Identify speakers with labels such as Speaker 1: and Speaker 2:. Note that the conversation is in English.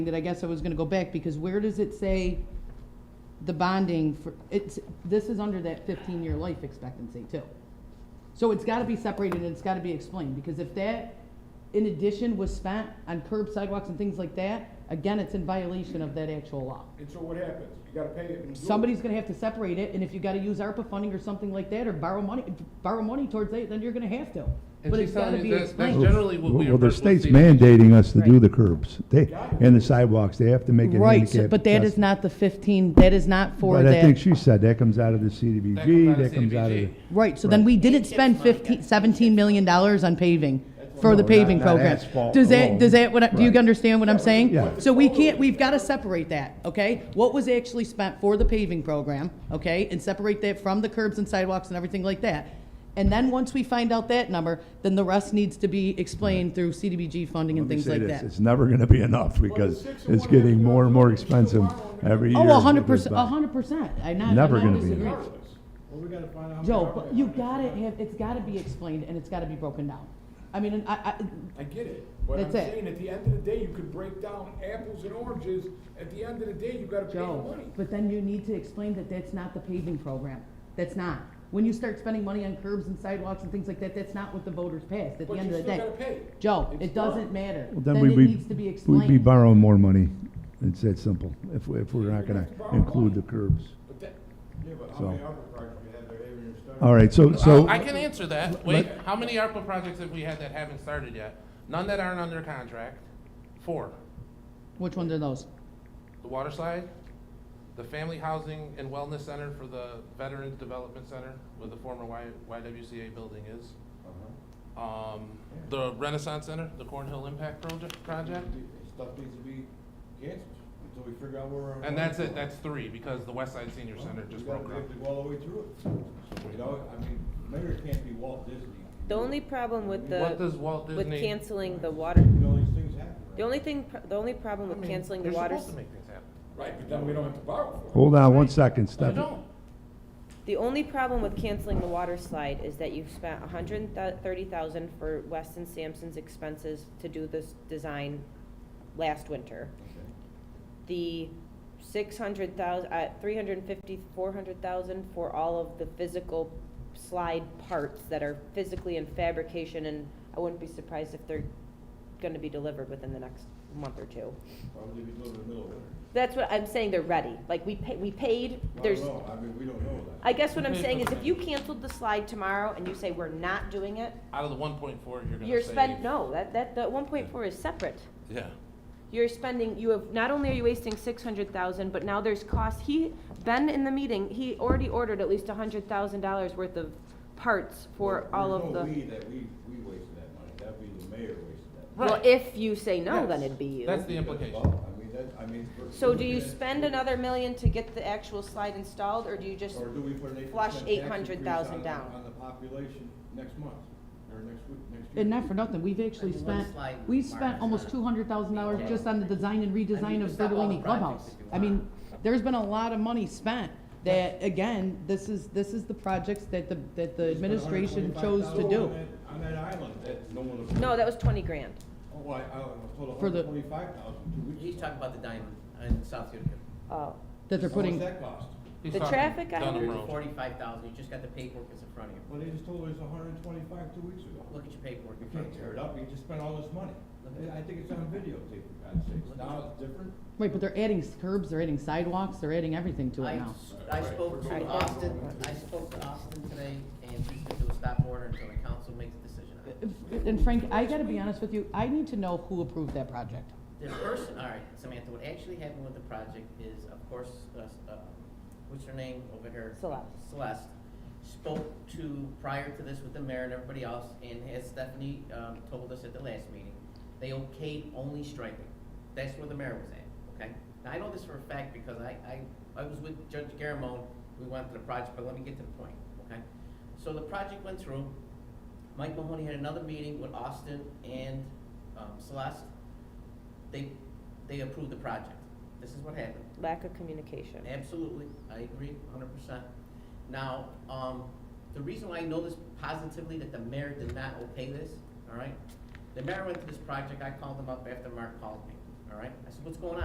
Speaker 1: that I guess I was gonna go back, because where does it say the bonding for, it's, this is under that fifteen-year life expectancy too. So it's gotta be separated and it's gotta be explained, because if that, in addition, was spent on curb sidewalks and things like that, again, it's in violation of that actual law.
Speaker 2: And so what happens? You gotta pay it. and do it.
Speaker 1: Somebody's gonna have to separate it, and if you gotta use ARPA funding or something like that, or borrow money, borrow money towards it, then you're gonna have to.
Speaker 3: And
Speaker 1: But
Speaker 3: she's
Speaker 1: it's gotta
Speaker 3: telling
Speaker 1: be
Speaker 3: you that- that's
Speaker 1: explained.
Speaker 3: generally what we.
Speaker 4: Well, the
Speaker 3: what
Speaker 4: state's
Speaker 3: state-
Speaker 4: mandating us to do
Speaker 5: Right.
Speaker 4: the curbs, they, and the sidewalks, they have to make it
Speaker 1: Right, so-
Speaker 4: handicap.
Speaker 1: but that is
Speaker 4: accessible.
Speaker 1: not the fifteen, that is not for
Speaker 4: But
Speaker 1: that.
Speaker 4: I think she said that comes out of the
Speaker 3: That comes out
Speaker 4: CDBG,
Speaker 3: of
Speaker 4: that comes out of the.
Speaker 3: CDBG.
Speaker 1: Right, so then we didn't spend fifteen, seventeen million dollars on paving, for the
Speaker 4: No,
Speaker 1: paving
Speaker 4: not- not
Speaker 1: program.
Speaker 4: asphalt
Speaker 1: Does that,
Speaker 4: alone.
Speaker 1: does that, what I- do you
Speaker 4: Right.
Speaker 1: understand what I'm saying?
Speaker 4: Yeah.
Speaker 1: So we can't, we've gotta separate that, okay? What was actually spent for the paving program, okay? And separate that from the curbs and sidewalks and everything like that. And then, once we find out that number, then the rest needs to be explained through CDBG funding and
Speaker 4: Let me
Speaker 1: things
Speaker 4: say
Speaker 1: like
Speaker 4: this,
Speaker 1: that.
Speaker 4: It's never gonna be enough because
Speaker 2: six and
Speaker 4: it's
Speaker 2: one half
Speaker 4: getting more and more
Speaker 2: yards, you still
Speaker 4: expensive
Speaker 2: borrow them.
Speaker 4: every year.
Speaker 1: Oh,
Speaker 4: as
Speaker 1: a
Speaker 4: it
Speaker 1: hundred
Speaker 4: goes
Speaker 1: percent,
Speaker 4: by.
Speaker 1: a hundred percent, I not, I'm
Speaker 4: Never
Speaker 1: not
Speaker 4: gonna be
Speaker 1: disagreeing.
Speaker 4: enough.
Speaker 2: Well, we gotta find out. how
Speaker 1: Joe,
Speaker 2: many
Speaker 1: but
Speaker 2: hours
Speaker 1: you
Speaker 2: they
Speaker 1: gotta
Speaker 2: have.
Speaker 1: have, it's gotta be explained, and it's gotta be broken down. I mean, and I, I,
Speaker 2: I get it, but I'm
Speaker 1: That's it.
Speaker 2: saying, at the end of the day, you could break down apples and oranges, at the end of the day, you gotta pay the
Speaker 1: Joe,
Speaker 2: money.
Speaker 1: but then you need to explain that that's not the paving program. That's not. When you start spending money on curbs and sidewalks and things like that, that's not what the voters passed at the
Speaker 2: But
Speaker 1: end
Speaker 2: you
Speaker 1: of the day.
Speaker 2: still gotta pay.
Speaker 1: Joe,
Speaker 2: It's
Speaker 1: it doesn't
Speaker 2: done.
Speaker 1: matter.
Speaker 4: Well,
Speaker 1: Then
Speaker 4: we'd
Speaker 1: it
Speaker 4: be-
Speaker 1: needs to be
Speaker 4: We'd be
Speaker 1: explained.
Speaker 4: borrowing more money, it's that simple, if, we- if we're
Speaker 2: You're
Speaker 4: not
Speaker 2: gonna
Speaker 4: gonna
Speaker 2: have to borrow
Speaker 4: include
Speaker 2: money.
Speaker 4: the curbs.
Speaker 2: But that,
Speaker 6: Yeah, but how
Speaker 4: So-
Speaker 6: many other projects we had that haven't even started?
Speaker 4: All right, so, so,
Speaker 3: I can answer that. Wait, how many ARPA projects have we had that haven't started yet? None that aren't under contract. Four.
Speaker 1: Which ones are those?
Speaker 3: The water slide, the family housing and wellness center for the Veterans Development Center, where the former Y, YWCA building is.
Speaker 6: Uh-huh.
Speaker 3: Um, the Renaissance Center, the Cornhill Impact Project, project.
Speaker 6: Stuff needs to be canceled until we figure out where we're.
Speaker 3: And that's it, that's three, because the West Side Senior Center
Speaker 6: We
Speaker 3: just
Speaker 6: gotta-
Speaker 3: broke
Speaker 6: We
Speaker 3: up.
Speaker 6: have to go all the way through it. You know, I mean, mayor can't be Walt Disney.
Speaker 5: The only problem with
Speaker 3: What
Speaker 5: the,
Speaker 3: does Walt
Speaker 5: with
Speaker 3: Disney?
Speaker 5: canceling the water,
Speaker 6: You know, these things happen. right?
Speaker 5: the only thing, pr- the only problem
Speaker 3: I
Speaker 5: with
Speaker 3: mean,
Speaker 5: canceling the
Speaker 3: they're
Speaker 5: water,
Speaker 3: supposed to make things happen.
Speaker 2: right, but then we don't have to borrow for it.
Speaker 4: hold on one second,
Speaker 3: They
Speaker 4: Stephanie.
Speaker 3: don't.
Speaker 5: the only problem with canceling the water slide is that you've spent a hundred and thirty thousand for Weston Sampson's expenses to do this design last winter.
Speaker 6: Okay.
Speaker 5: The six hundred thousand, uh, three hundred and fifty, four hundred thousand for all of the physical slide parts that are physically in fabrication, and I wouldn't be surprised if they're gonna be delivered within the next month or two.
Speaker 6: Probably be delivered in the middle of winter.
Speaker 5: That's what I'm saying, they're ready. Like, we pay, we paid,
Speaker 6: I
Speaker 5: there's,
Speaker 6: don't know, I mean, we don't know that.
Speaker 5: I guess what I'm
Speaker 3: We paid
Speaker 5: saying
Speaker 3: for
Speaker 5: is
Speaker 3: the
Speaker 5: if you canceled the slide tomorrow and you say we're not doing it,
Speaker 3: Out of the one point four, you're gonna save.
Speaker 5: you're spend, no, that, that, that one point four is separate.
Speaker 3: Yeah.
Speaker 5: You're spending, you have, not only are you wasting six hundred thousand, but now there's cost. He, Ben in the meeting, he already ordered at least a hundred thousand dollars worth of parts for
Speaker 6: There's
Speaker 5: all of
Speaker 6: no
Speaker 5: the.
Speaker 6: we that we, we wasted that money, that'd be the mayor wasted that. money.
Speaker 5: Well,
Speaker 3: Right.
Speaker 5: if you say no, then
Speaker 3: Yes.
Speaker 5: it'd be you.
Speaker 3: That's the implication.
Speaker 6: Well, I mean, that, I mean. we're-
Speaker 5: So
Speaker 6: we're
Speaker 5: do you
Speaker 6: looking at-
Speaker 5: spend another million to get the actual slide installed, or do you just
Speaker 6: Or do we put an eight
Speaker 5: flush
Speaker 6: percent tax increase on
Speaker 5: 800,000
Speaker 6: the-
Speaker 5: down?
Speaker 6: On the population next month, or next week, next year.
Speaker 1: And not for nothing, we've actually
Speaker 7: That's one
Speaker 1: spent,
Speaker 7: slide
Speaker 1: we've
Speaker 7: mark
Speaker 1: spent
Speaker 7: is
Speaker 1: almost
Speaker 7: on it.
Speaker 1: two hundred thousand dollars just on the design and
Speaker 7: I mean,
Speaker 1: redesign
Speaker 7: you
Speaker 1: of
Speaker 7: can stop all the
Speaker 1: Bertolini Clubhouse.
Speaker 7: projects if you
Speaker 1: I mean,
Speaker 7: want.
Speaker 1: there's been a lot of money spent that, again, this is, this is the projects that the, that the
Speaker 6: We spent
Speaker 1: administration chose to
Speaker 6: $125,000
Speaker 1: do.
Speaker 6: on that- On that island, that no one.
Speaker 5: No, that was twenty grand.
Speaker 6: Oh, I, I was told
Speaker 1: For the-
Speaker 6: hundred twenty-five thousand two weeks.
Speaker 7: He's talking about the diamond in South Utica.
Speaker 5: Oh.
Speaker 1: That they're putting.
Speaker 6: How much that cost?
Speaker 3: He's
Speaker 5: The
Speaker 3: talking
Speaker 5: traffic
Speaker 3: Dunham
Speaker 5: island?
Speaker 3: Road.
Speaker 7: Forty-five thousand, you just got the paperwork that's in front of you.
Speaker 6: Well, they just told us hundred and twenty-five two weeks ago.
Speaker 7: Look at your paperwork.
Speaker 6: You
Speaker 7: in front
Speaker 6: can't
Speaker 7: of
Speaker 6: tear it
Speaker 7: you.
Speaker 6: up, you just spent all this money. I I think it's on videotape, for God's sakes. Now it's different.
Speaker 1: Right, but they're adding curbs, they're adding sidewalks, they're adding everything to it
Speaker 7: I,
Speaker 1: now.
Speaker 7: I spoke
Speaker 5: Right.
Speaker 7: to Austin, I spoke to Austin today, and he's gonna do a stop order until the council makes a decision on it.
Speaker 1: And Frank, I gotta be honest with you, I need to know who approved that project.
Speaker 7: The person, all right, Samantha, what actually happened with the project is, of course, uh, uh, what's her name over here?
Speaker 5: Celeste.
Speaker 7: Celeste spoke to, prior to this with the mayor and everybody else, and as Stephanie, um, told us at the last meeting, they okayed only striping. That's where the mayor was at, okay? Now, I know this for a fact because I, I, I was with Judge Garamone, we went to the project, but let me get to the point, okay? So the project went through, Mike Mahoney had another meeting with Austin and, um, Celeste, they, they approved the project. This is what happened.
Speaker 5: Lack of communication.
Speaker 7: Absolutely, I agree hundred percent. Now, um, the reason why I know this positively, that the mayor did not okay this, all right? The mayor went to this project, I called him up after Mark called me, all right? I said, what's going on?